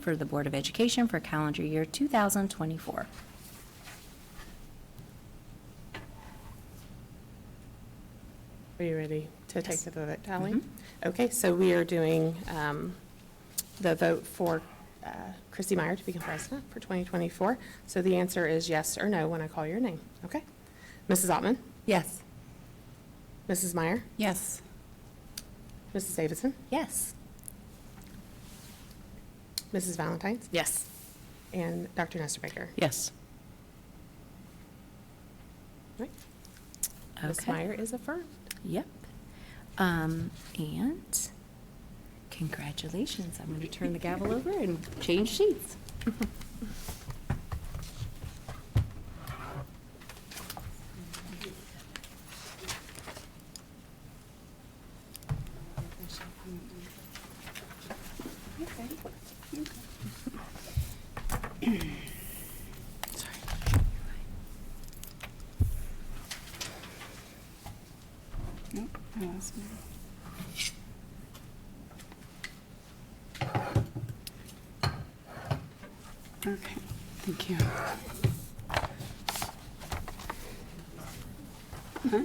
for the Board of Education for calendar year 2024. Are you ready to take the vote, Ally? Mhm. Okay, so we are doing um, the vote for uh, Christy Meyer to become president for 2024. So the answer is yes or no when I call your name, okay? Mrs. Ottman? Yes. Mrs. Meyer? Yes. Mrs. Davidson? Yes. Mrs. Valentines? Yes. And Dr. Nestor Baker? Yes. Right. Ms. Okay. Meyer is affirmed. Yep. Um, And congratulations. I'm going to turn the gavel over and change seats. Nope, I lost mine. Okay, thank you. Huh?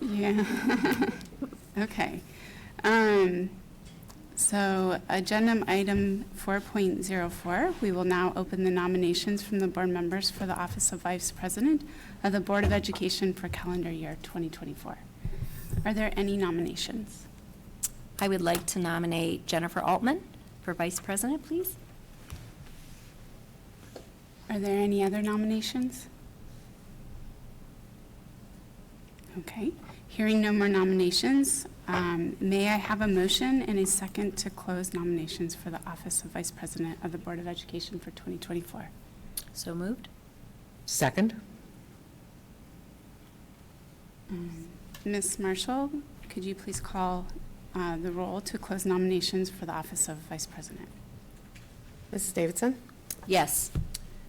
Yeah. Okay. Um, So agenda item 4.04, we will now open the nominations from the board members for the office of vice president of the Board of Education for calendar year 2024. Are there any nominations? I would like to nominate Jennifer Altman for Vice President, please. Are there any other nominations? Okay, hearing no more nominations, um, may I have a motion and a second to close nominations for the office of Vice President of the Board of Education for 2024? So moved? Second? Um, Ms. Marshall, could you please call uh, the roll to close nominations for the office of Vice President? Mrs. Davidson? Yes.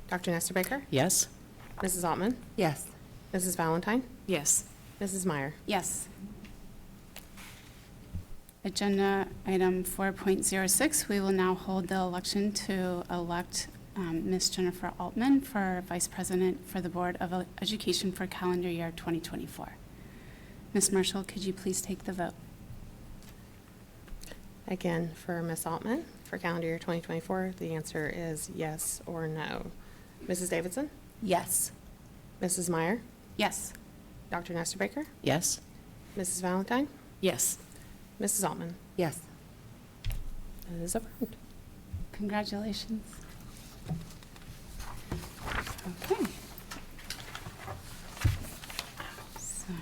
Dr. Nestor Baker? Yes. Mrs. Altman? Yes. Mrs. Valentine? Yes. Mrs. Meyer? Yes. Agenda item 4.06, we will now hold the election to elect um, Ms. Jennifer Altman for Vice President for the Board of Education for calendar year 2024. Ms. Marshall, could you please take the vote? Again, for Ms. Altman, for calendar year 2024, the answer is yes or no. Mrs. Davidson? Yes. Mrs. Meyer? Yes. Dr. Nestor Baker? Yes. Mrs. Valentine? Yes. Mrs. Altman? Yes. It is affirmed. Congratulations. Okay. So,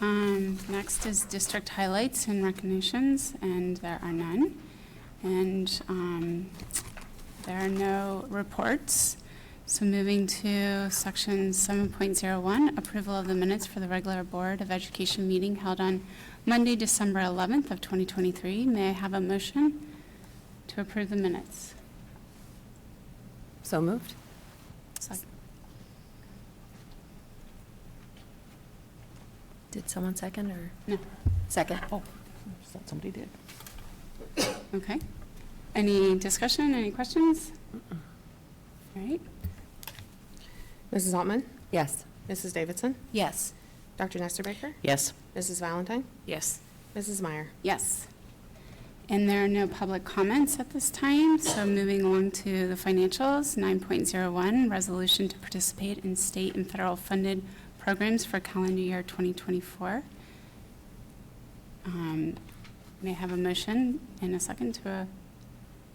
um, next is district highlights and recognitions, and there are none. And, um, there are no reports. So moving to section seven point zero one, approval of the minutes for the regular Board of Education meeting held on Monday, December eleventh of twenty twenty-three. May I have a motion? To approve the minutes. So moved? Sec- Did someone second or? No. Second. Oh, thought somebody did. Okay. Any discussion, any questions? All right, Mrs. Altman? Yes. Mrs. Davidson? Yes. Dr. Nestor Baker? Yes. Mrs. Valentine? Yes. Mrs. Meyer? yes. And there are no public comments at this time, so moving along to the financials, 9.01, resolution to participate in state and federal funded programs for calendar year 2024. Um, May I have a motion and a second to uh,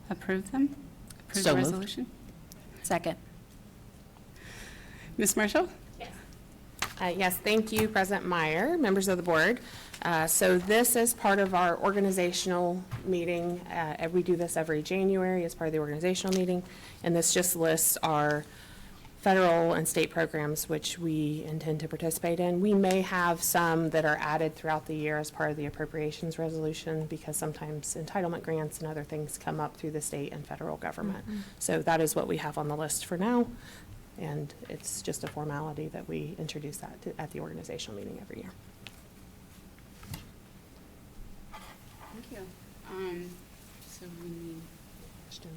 approve them? Approve So the moved. resolution? Second. Ms. Marshall? Uh, Yes, thank you, President Meyer, members of the board. Uh, So this is part of our organizational meeting. Uh, and We do this every January as part of the organizational meeting. And this just lists our federal and state programs which we intend to participate in. We may have some that are added throughout the year as part of the appropriations resolution because sometimes entitlement grants and other things come up through the state and federal government. So that is what we have on the list for now. And it's just a formality that we introduce that to- at the organizational meeting every year. Thank you. Um, so we need